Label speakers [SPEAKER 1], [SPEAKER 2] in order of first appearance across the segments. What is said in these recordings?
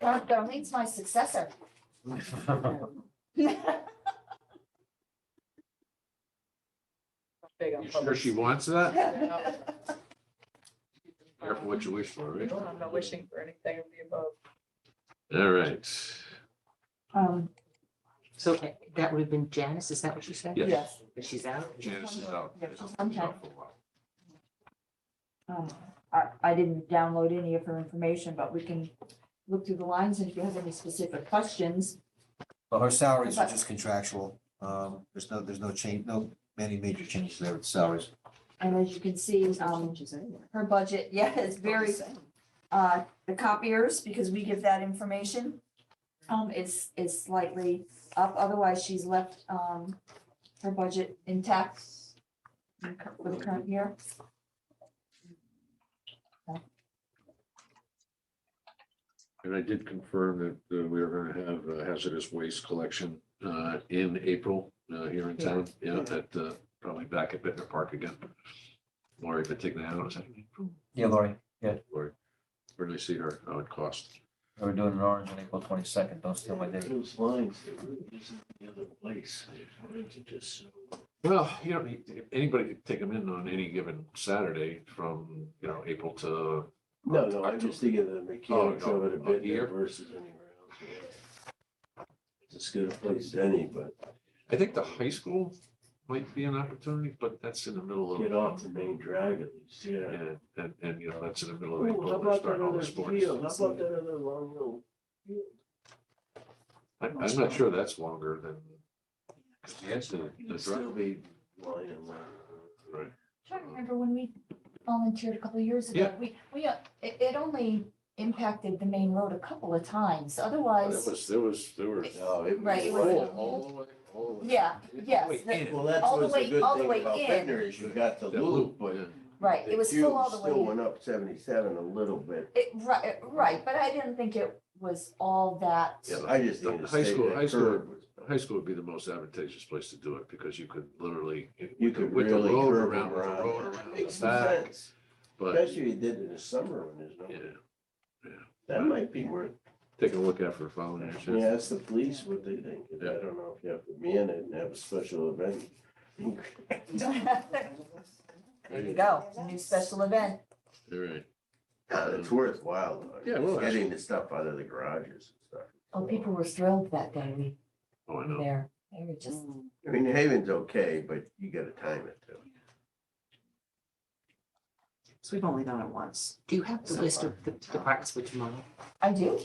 [SPEAKER 1] Dar- Darlene's my successor.
[SPEAKER 2] Big on
[SPEAKER 3] You sure
[SPEAKER 2] public.
[SPEAKER 3] she wants that?
[SPEAKER 1] Well,
[SPEAKER 3] Careful what you wish for, right?
[SPEAKER 2] I'm not wishing for anything of the above.
[SPEAKER 3] All right.
[SPEAKER 4] Um, so that would have been Janice, is that what you said?
[SPEAKER 3] Yes.
[SPEAKER 2] Yes.
[SPEAKER 4] But she's out?
[SPEAKER 3] Janice is out.
[SPEAKER 4] Yeah,
[SPEAKER 3] She's
[SPEAKER 1] okay.
[SPEAKER 3] out for a while.
[SPEAKER 1] um, I, I didn't download any of her information, but we can look through the lines and if you have any specific questions.
[SPEAKER 5] Well, her salaries are
[SPEAKER 1] But-
[SPEAKER 5] just contractual. Um, there's no, there's no change, no, many major changes there with salaries.
[SPEAKER 1] And as you can see, um, her budget, yeah, it's very, uh, the copiers, because we give that information. Um, is, is slightly up, otherwise she's left, um, her budget intact in cur- for the current year.
[SPEAKER 3] And I did confirm that uh, we were gonna have uh, hazardous waste collection uh, in April uh, here in town. Yeah, at uh, probably back at Bittner Park again. Lori, if I take that out, is that
[SPEAKER 6] Yeah, Lori,
[SPEAKER 3] Lori? Where do I see her? How it costs?
[SPEAKER 6] we're doing an orange on April twenty-second, don't steal my day.
[SPEAKER 7] Those lines, there really isn't any other place. It's just so-
[SPEAKER 3] Well, you don't need, anybody could take them in on any given Saturday from, you know, April to
[SPEAKER 7] No, no, I'm just thinking of the mechanics
[SPEAKER 3] Oh, no,
[SPEAKER 7] of it a
[SPEAKER 3] up
[SPEAKER 7] bit
[SPEAKER 3] here?
[SPEAKER 7] there versus anywhere else. yeah. It's as good a place as any, but
[SPEAKER 3] I think the high school might be an opportunity, but that's in the middle of.
[SPEAKER 7] get off the main drag at least, yeah.
[SPEAKER 3] And, and, and, you know, that's in the middle of
[SPEAKER 7] Ooh, How
[SPEAKER 3] April, they
[SPEAKER 7] about that
[SPEAKER 3] start all the
[SPEAKER 7] other
[SPEAKER 3] sports.
[SPEAKER 7] field? How about that other long little? field?
[SPEAKER 3] I'm, I'm not sure that's longer than. Cause the edge of the
[SPEAKER 7] It'd still
[SPEAKER 3] drive.
[SPEAKER 7] be line and line.
[SPEAKER 3] Right.
[SPEAKER 1] Trying to remember when we volunteered a couple of years ago,
[SPEAKER 3] Yeah.
[SPEAKER 1] we, we, uh, it, it only impacted the main road a couple of times,
[SPEAKER 3] That
[SPEAKER 1] otherwise.
[SPEAKER 3] was, there was, there were.
[SPEAKER 7] No, it was
[SPEAKER 1] Right, it was-
[SPEAKER 7] line
[SPEAKER 3] All,
[SPEAKER 7] and line.
[SPEAKER 3] all the way, all the way.
[SPEAKER 1] Yeah, yes,
[SPEAKER 3] Wait,
[SPEAKER 1] the-
[SPEAKER 3] in.
[SPEAKER 7] Well, that's
[SPEAKER 1] All the
[SPEAKER 7] what's the
[SPEAKER 1] way-
[SPEAKER 7] good
[SPEAKER 1] all the way
[SPEAKER 7] thing about
[SPEAKER 1] in.
[SPEAKER 7] Ventnor is you got the
[SPEAKER 3] That
[SPEAKER 7] loop, but
[SPEAKER 3] yeah.
[SPEAKER 1] Right, it was still all the
[SPEAKER 7] cube Still
[SPEAKER 1] way,
[SPEAKER 7] went up seventy-seven a little bit.
[SPEAKER 1] it, right, right, but I didn't think it was all that.
[SPEAKER 3] Yeah,
[SPEAKER 7] I just
[SPEAKER 3] The
[SPEAKER 7] need to
[SPEAKER 3] high
[SPEAKER 7] say
[SPEAKER 3] school-
[SPEAKER 7] that
[SPEAKER 3] high school-
[SPEAKER 7] curve was-
[SPEAKER 3] High school would be the most advantageous place to do it because you could literally.
[SPEAKER 7] You
[SPEAKER 3] with the-
[SPEAKER 7] could
[SPEAKER 3] with the
[SPEAKER 7] really
[SPEAKER 3] road
[SPEAKER 7] curve
[SPEAKER 3] around, with
[SPEAKER 7] around.
[SPEAKER 3] the Road
[SPEAKER 7] That
[SPEAKER 3] around
[SPEAKER 7] makes
[SPEAKER 3] the
[SPEAKER 7] some
[SPEAKER 3] back,
[SPEAKER 7] sense.
[SPEAKER 3] but,
[SPEAKER 7] Especially if you did it in the summer when there's
[SPEAKER 3] yeah,
[SPEAKER 7] no, that might be worth,
[SPEAKER 3] take a look at for following.
[SPEAKER 7] yeah, ask the police what they think. I
[SPEAKER 3] Yeah.
[SPEAKER 7] don't know if you have to be in it and have a special event.
[SPEAKER 1] There you go, new special event.
[SPEAKER 3] All right.
[SPEAKER 7] Yeah, it's worthwhile. though.
[SPEAKER 3] Yeah, well, that's-
[SPEAKER 7] Getting the stuff out of the garages and stuff.
[SPEAKER 1] Oh, people were thrilled that day we
[SPEAKER 3] Oh, I
[SPEAKER 1] were
[SPEAKER 3] know. Mm.
[SPEAKER 1] there. They were just,
[SPEAKER 7] I mean, New Haven's okay, but you gotta time it too.
[SPEAKER 4] So we've only done it once. Do you have the list of the the parks for tomorrow?
[SPEAKER 1] I do,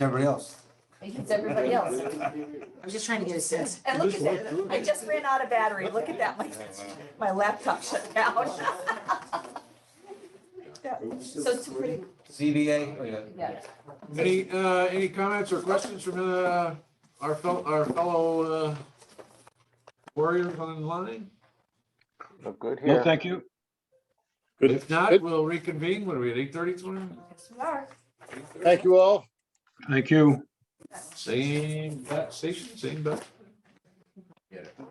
[SPEAKER 5] Everybody else?
[SPEAKER 1] it's everybody else.
[SPEAKER 4] I was just trying to get a sense.
[SPEAKER 1] And look at that, I just ran out of battery, look at that, my, my laptop shut down. So it's pretty,
[SPEAKER 5] ZBA, oh, yeah.
[SPEAKER 1] yeah.
[SPEAKER 3] Any, uh, any comments or questions from, uh, our fellow, our fellow, uh, warriors online?
[SPEAKER 8] No, thank you.
[SPEAKER 3] If not, we'll reconvene. What are we at eight thirty tomorrow?
[SPEAKER 1] Yes, we are.
[SPEAKER 8] Thank you all. Thank you.
[SPEAKER 3] Same bat station, same bat.
[SPEAKER 7] Get it.